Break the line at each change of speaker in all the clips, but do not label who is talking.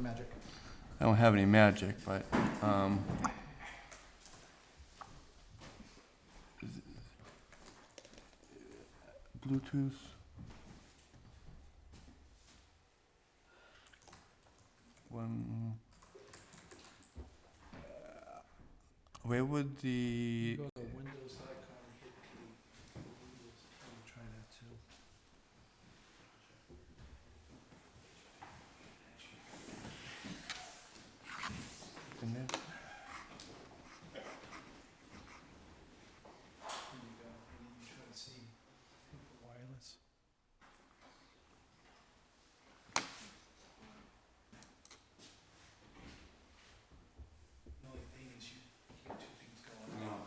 magic.
I don't have any magic, but, um. Bluetooth? One. uh, Where would the,
Go to windows.com, hit the Windows, and try that too.
in there?
There you go, and then you try to see with the wireless. The only thing is you, you got two things going on.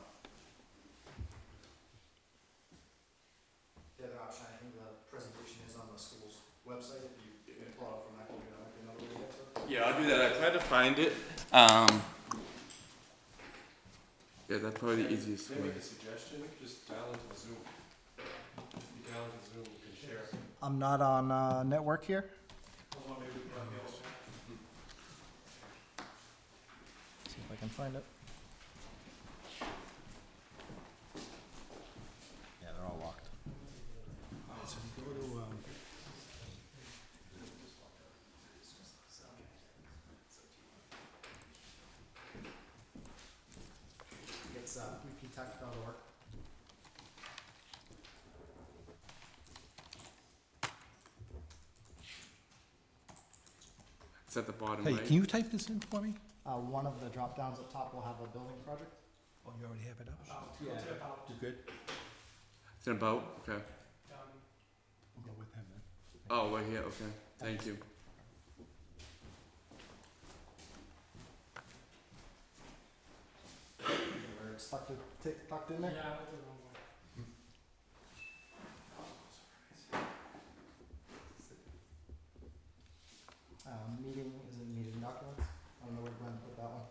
The other option, I think the presentation is on the school's website, if you if you pull it up from that computer, that might be another way to get to it.
Yeah, I'll do that. I tried to find it. Um, yeah, that's probably the easiest
Can I
way.
make a suggestion? Just dial into the Zoom. You dial into Zoom, you can share.
I'm not on uh, network here.
Hold on, maybe we can run the old one.
See if I can find it. Yeah, they're all locked. so you go to, um,
It's, uh, repeattech.org.
It's at the bottom
Hey,
right.
can you type this in for me?
Uh, one of the drop downs up top will have a building project.
oh, you already have it up?
Yeah.
Oh,
You good?
It's in about. Okay.
We'll go with him then.
Oh, right here. Okay. Thank you.
Where it's tucked, in- t- tucked in there. Um, meeting is in meeting documents. I don't know where Glenn put that one.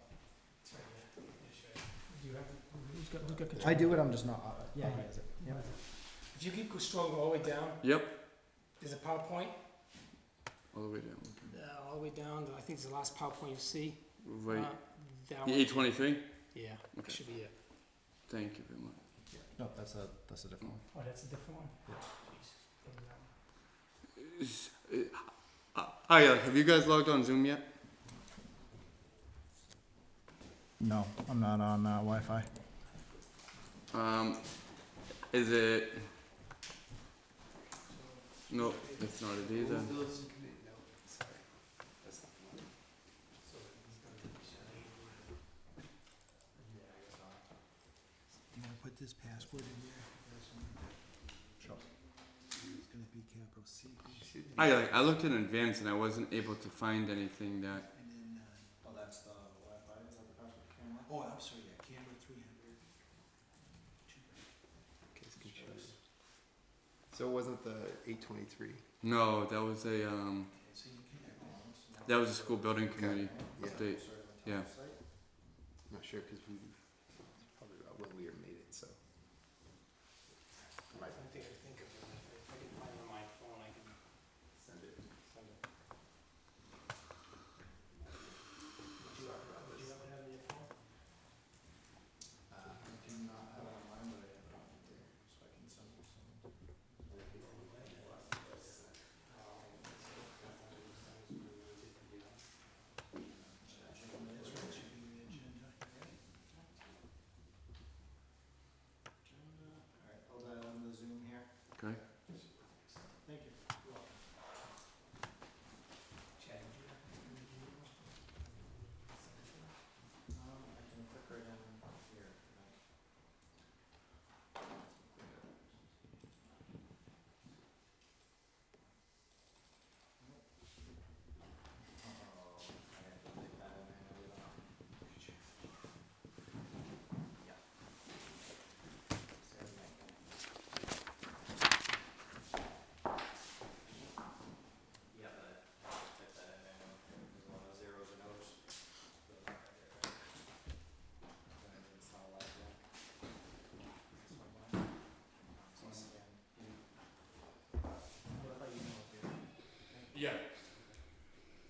Do you have, who's got, who's got
I do it, I'm just not, uh, yeah, he
Alright.
has it.
Yep.
Yep.
If you keep scrolling all the way down,
Yep.
there's a PowerPoint,
All the way down.
uh, all the way down, I think it's the last PowerPoint you see.
Right.
Uh, That
the
one,
A23.
yeah, that
Okay.
should be it.
Thank you very much.
No, that's a, that's a different one.
Oh, that's a different one?
Yeah.
Is- uh, uh, Hi, uh, have you guys logged on Zoom yet?
No, I'm not on, uh, Wi-Fi.
Um, is it? No, that's not it either.
Do you wanna put this password in there?
Sure.
It's gonna be capital C,
I like, I looked in advance and I wasn't able to find anything that.
and then, uh,
Oh, that's the Wi-Fi, is that the password camera?
oh, I'm sorry, yeah, camera three hundred.
So it wasn't the eight twenty-three?
No, that was a um,
So you can,
that was a school building committee
Yeah.
update. Yeah.
Not sure, cause we
Uh,